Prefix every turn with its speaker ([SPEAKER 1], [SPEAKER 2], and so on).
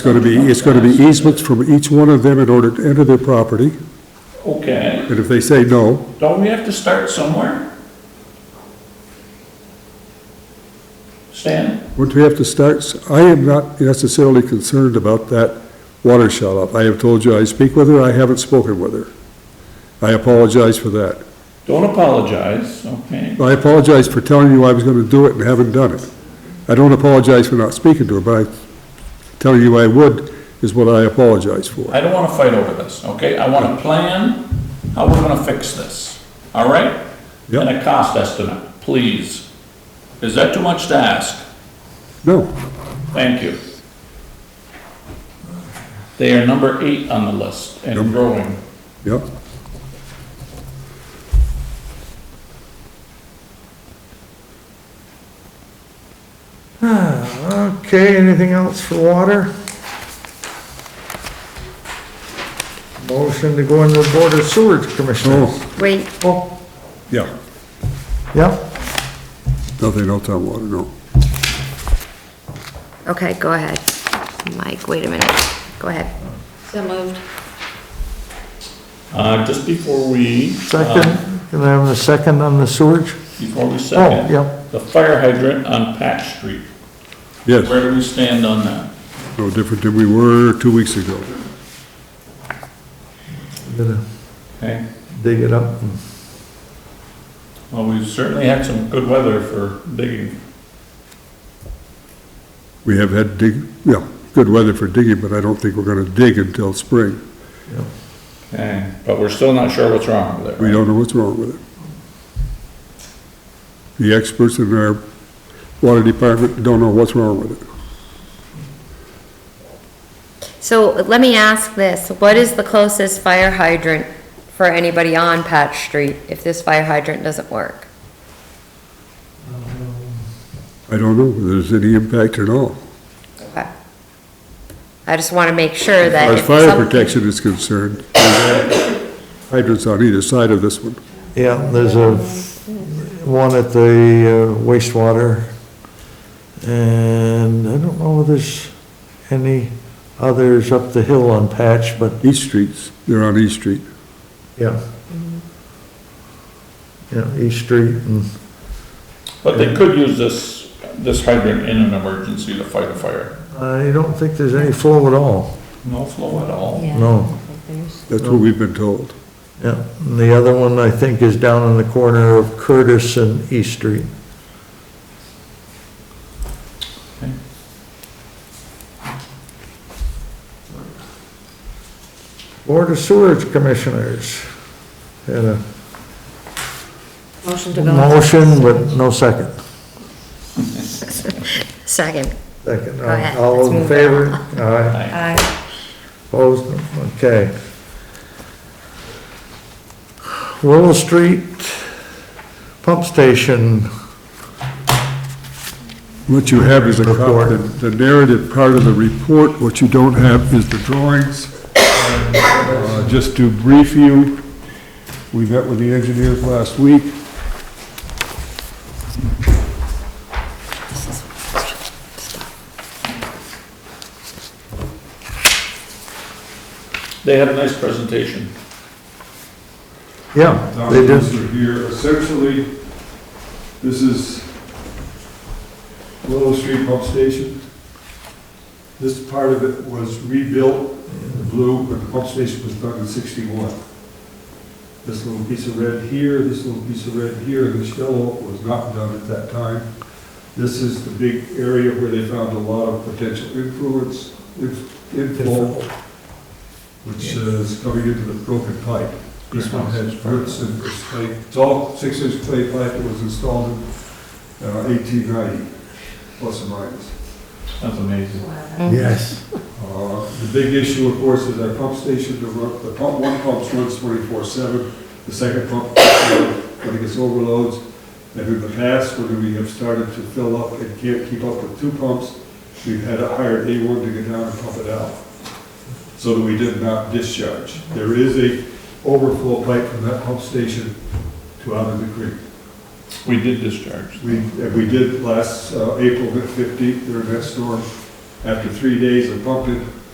[SPEAKER 1] Going to be, it's going to be easements from each one of them in order to enter their property,
[SPEAKER 2] Okay,
[SPEAKER 1] and if they say no,
[SPEAKER 2] don't we have to start somewhere? Stan?
[SPEAKER 1] Wouldn't we have to start, s- I am not necessarily concerned about that water shut off. I have told you I speak with her, I haven't spoken with her. I apologize for that.
[SPEAKER 2] Don't apologize, okay?
[SPEAKER 1] I apologize for telling you I was gonna do it and haven't done it. I don't apologize for not speaking to her, but I, telling you I would is what I apologize for.
[SPEAKER 2] I don't wanna fight over this, okay? I want a plan, how we're gonna fix this, all right?
[SPEAKER 1] Yep.
[SPEAKER 2] And a cost estimate, please. Is that too much to ask?
[SPEAKER 1] No,
[SPEAKER 2] Thank you. They are number eight on the list and growing.
[SPEAKER 1] yeah.
[SPEAKER 3] Okay, anything else for water? Motion to go into Board of Sewer Commissioners.
[SPEAKER 1] Oh,
[SPEAKER 4] Wait,
[SPEAKER 3] Oh,
[SPEAKER 1] yeah.
[SPEAKER 3] yeah,
[SPEAKER 1] Nothing else on water, no.
[SPEAKER 4] okay, go ahead. Mike, wait a minute. Go ahead. So moved.
[SPEAKER 2] Uh, just before we. uh,
[SPEAKER 3] second, can I have a second on the sewage?
[SPEAKER 2] Before we second.
[SPEAKER 3] Oh, yeah.
[SPEAKER 2] The fire hydrant on Patch Street,
[SPEAKER 1] Yes,
[SPEAKER 2] where do we stand on that?
[SPEAKER 1] no different than we were two weeks ago.
[SPEAKER 3] I'm Gonna
[SPEAKER 2] Okay,
[SPEAKER 3] dig it up. and-
[SPEAKER 2] well, we've certainly had some good weather for digging.
[SPEAKER 1] We have had dig, yeah, good weather for digging, but I don't think we're gonna dig until spring.
[SPEAKER 2] Okay, eh, but we're still not sure what's wrong with it.
[SPEAKER 1] We
[SPEAKER 2] right?
[SPEAKER 1] don't know what's wrong with it. The experts in our water department don't know what's wrong with it.
[SPEAKER 4] So let me ask this, what is the closest fire hydrant for anybody on Patch Street if this fire hydrant doesn't work?
[SPEAKER 1] I don't know whether there's any impact at all.
[SPEAKER 4] Okay. I just want to make sure
[SPEAKER 1] As
[SPEAKER 4] that.
[SPEAKER 1] far as
[SPEAKER 4] if
[SPEAKER 1] fire
[SPEAKER 4] some-
[SPEAKER 1] protection is concerned, there's hydrants on either side of this one.
[SPEAKER 3] Yeah, there's a, one at the uh, wastewater. And I don't know if there's any others up the hill on Patch, but
[SPEAKER 1] East Streets, they're on East Street.
[SPEAKER 3] Yeah. Yeah, East Street and,
[SPEAKER 2] But they could use this, this hydrant in an emergency to fight a fire.
[SPEAKER 3] I don't think there's any flow at all,
[SPEAKER 2] No flow at all.
[SPEAKER 3] no,
[SPEAKER 1] That's what we've been told.
[SPEAKER 3] yeah. And the other one, I think, is down in the corner of Curtis and East Street. Board of Sewerage Commissioners had a
[SPEAKER 4] Motion to go.
[SPEAKER 3] motion, but no second.
[SPEAKER 4] Second.
[SPEAKER 3] Second,
[SPEAKER 4] Go ahead,
[SPEAKER 3] all
[SPEAKER 4] let's
[SPEAKER 3] those in
[SPEAKER 4] move
[SPEAKER 3] favor?
[SPEAKER 4] on.
[SPEAKER 3] Aye.
[SPEAKER 2] Aye.
[SPEAKER 3] Opposed? Okay. Willow Street Pump Station,
[SPEAKER 1] What you have is a, co-
[SPEAKER 3] Report.
[SPEAKER 1] the the narrative part of the report, what you don't have is the drawings. Uh, Just to brief you, we met with the engineers last week.
[SPEAKER 2] They had a nice presentation.
[SPEAKER 3] yeah, they
[SPEAKER 1] documents
[SPEAKER 3] did,
[SPEAKER 1] are here. Essentially, this is Willow Street Pump Station. This part of it was rebuilt in blue, but the pump station was done in 61. This little piece of red here, this little piece of red here, and this yellow was not done at that time. This is the big area where they found a lot of potential influence, inf- inflow, which uh, is coming into the broken pipe. This one has roots and it's clay, it's all six-inch clay pipe that was installed in uh, 1890, plus or minus.
[SPEAKER 2] That's amazing.
[SPEAKER 4] Mm-hmm.
[SPEAKER 3] yes.
[SPEAKER 1] Uh, The big issue, of course, is our pump station, the ru- the pump, one pump runs 24/7, the second pump, uh, when it gets overloads, and in the past, when we have started to fill up and can't keep up with two pumps, we've had to hire A1 to go down and pump it out, so that we did not discharge. There is a overflow pipe from that pump station to out of the creek.
[SPEAKER 2] We did discharge.
[SPEAKER 1] We, and we did last uh, April fifteenth, their next storm, After three days of pumping,